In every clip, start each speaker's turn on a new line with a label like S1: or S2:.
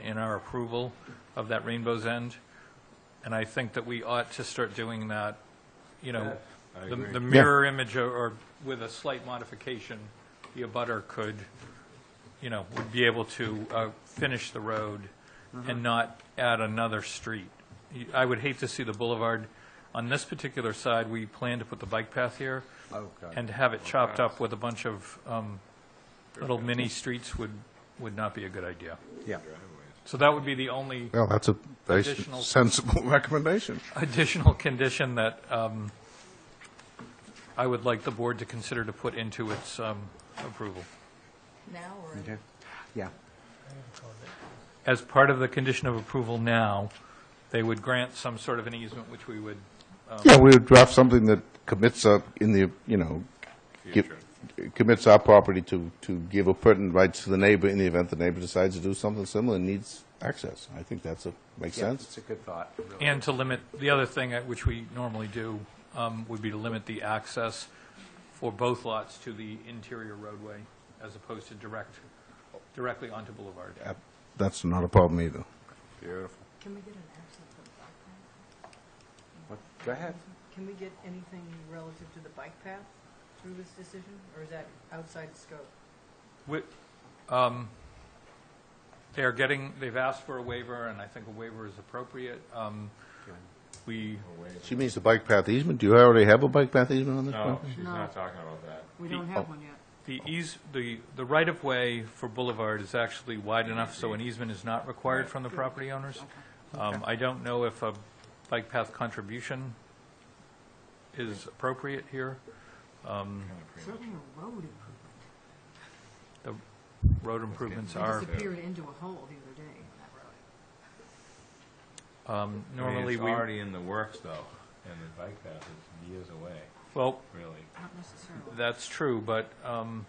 S1: in our approval of that Rainbow's End, and I think that we ought to start doing that, you know,
S2: I
S1: the
S2: agree.
S1: the mirror image or- or with a slight modification, the abutter could, you know, would be able to uh, finish the road
S2: Mm-hmm.
S1: and not add another street. You- I would hate to see the boulevard, on this particular side, we plan to put the bike path here,
S2: Okay.
S1: and to have it chopped up with a bunch of um, little mini streets would, would not be a good idea.
S2: Yeah.
S1: So that would be the only
S3: Well, that's a very
S1: Additional-
S3: sensible recommendation.
S1: additional condition that um, I would like the board to consider to put into its um, approval.
S4: now or?
S2: Okay. Yeah.
S1: As part of the condition of approval now, they would grant some sort of an easement, which we would,
S3: Yeah, we would draft something that commits up in the, you know, gi- commits our property to, to give a pertinent rights to the neighbor in the event the neighbor decides to do something similar and needs access. I think that's a, makes
S2: Yeah,
S3: sense.
S2: It's a good thought. really.
S1: and to limit, the other thing at which we normally do um, would be to limit the access for both lots to the interior roadway as opposed to direct, directly onto Boulevard.
S3: Uh, That's not a problem either.
S2: Beautiful.
S4: Can we get an absence of the bike path?
S2: What- Go ahead.
S4: Can we get anything relative to the bike path through this decision, or is that outside the scope?
S1: Wi- um, They are getting, they've asked for a waiver, and I think a waiver is appropriate. Um, We,
S3: She means the bike path easement. Do you already have a bike path easement on this
S5: No,
S3: property?
S5: Oh, she's not talking about that.
S4: We don't have one yet.
S1: the eas, the, the right-of-way for Boulevard is actually wide enough, so an easement is not required from the property owners. Um, I don't know if a bike path contribution is appropriate here.
S4: Certainly a road improvement.
S1: The road improvements
S4: I
S1: are,
S4: disappeared into a hole the other day on that road.
S1: um,
S5: I mean,
S1: normally
S5: It's
S1: we,
S5: already in the works, though, and the bike path is years away,
S1: well,
S5: really.
S4: Not necessarily.
S1: That's true, but um,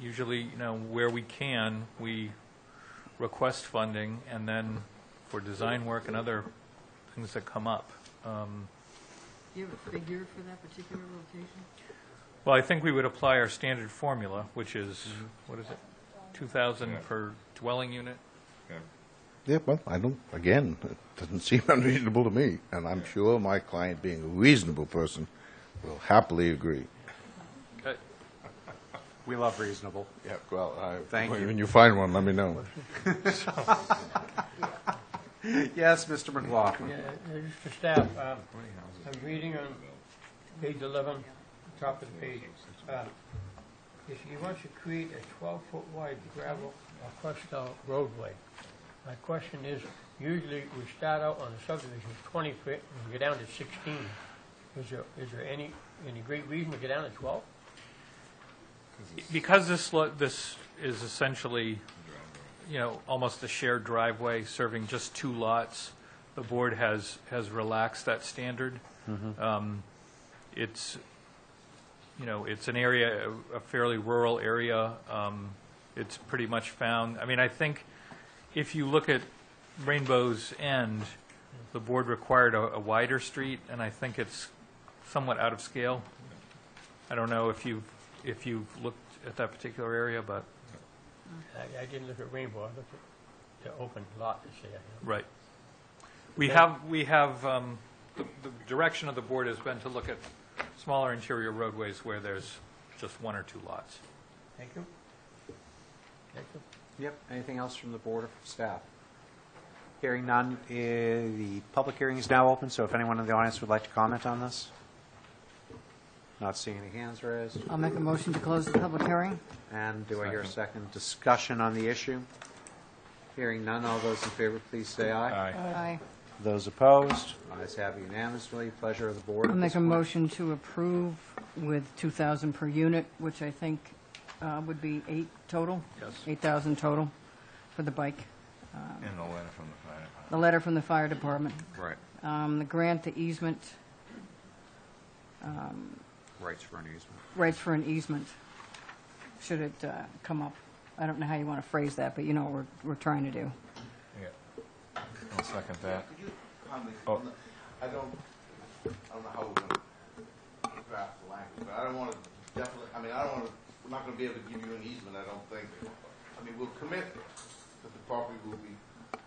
S1: usually, you know, where we can, we request funding, and then for design work and other things that come up. Um,
S4: Do you have a figure for that particular location?
S1: Well, I think we would apply our standard formula, which is, what is it, 2,000 per dwelling unit?
S5: Yeah.
S3: Yeah, well, I don't, again, it doesn't seem unreasonable to me, and I'm sure my client, being a reasonable person, will happily agree.
S1: Uh,
S2: We love reasonable.
S3: Yeah, well, I.
S2: Thank you.
S3: When you find one, let me know.
S2: Yes, Mr. McLaughlin.
S6: Yeah, uh, Mr. Staff, um, I'm reading on page 11, top of the page. uh, If he wants to create a 12-foot wide gravel or crushed out roadway, my question is, usually we start out on a subdivision 20 foot and we go down to 16. Is there, is there any, any great reason to go down to 12?
S1: Because this, lo- this is essentially, you know, almost a shared driveway serving just two lots, the board has, has relaxed that standard. Um, It's, you know, it's an area, a fairly rural area. Um, It's pretty much found, I mean, I think if you look at Rainbow's End, the board required a a wider street, and I think it's somewhat out of scale. I don't know if you've, if you've looked at that particular area, but,
S6: I I didn't look at Rainbow, I looked at the open lot that's there.
S1: right. We have, we have, um, the the direction of the board has been to look at smaller interior roadways where there's just one or two lots.
S6: Thank you. Thank you.
S2: Yep. Anything else from the board or from staff? Hearing none, eh, the public hearing is now open, so if anyone in the audience would like to comment on this? Not seeing any hands raised.
S7: I'll make a motion to close the public hearing.
S2: And do I hear a second discussion on the issue? Hearing none, all those in favor, please say aye.
S5: Aye.
S7: Aye.
S2: Those opposed, ayes have unanimously. Pleasure of the board.
S7: I'll
S2: at
S7: make
S2: this
S7: a
S2: point.
S7: motion to approve with 2,000 per unit, which I think uh, would be eight total?
S1: Yes.
S7: 8,000 total for the bike.
S5: And a letter from the fire department.
S7: The letter from the fire department,
S2: Right,
S7: um, the grant, the easement,
S2: rights for an easement.
S7: rights for an easement, should it uh, come up. I don't know how you want to phrase that, but you know what we're, we're trying to do.
S5: Yeah. I'll second that. Oh.
S3: I don't, I don't know how we're going to draft the language, but I don't want to definitely, I mean, I don't want to, we're not going to be able to give you an easement, I don't think. I mean, we'll commit that the property will be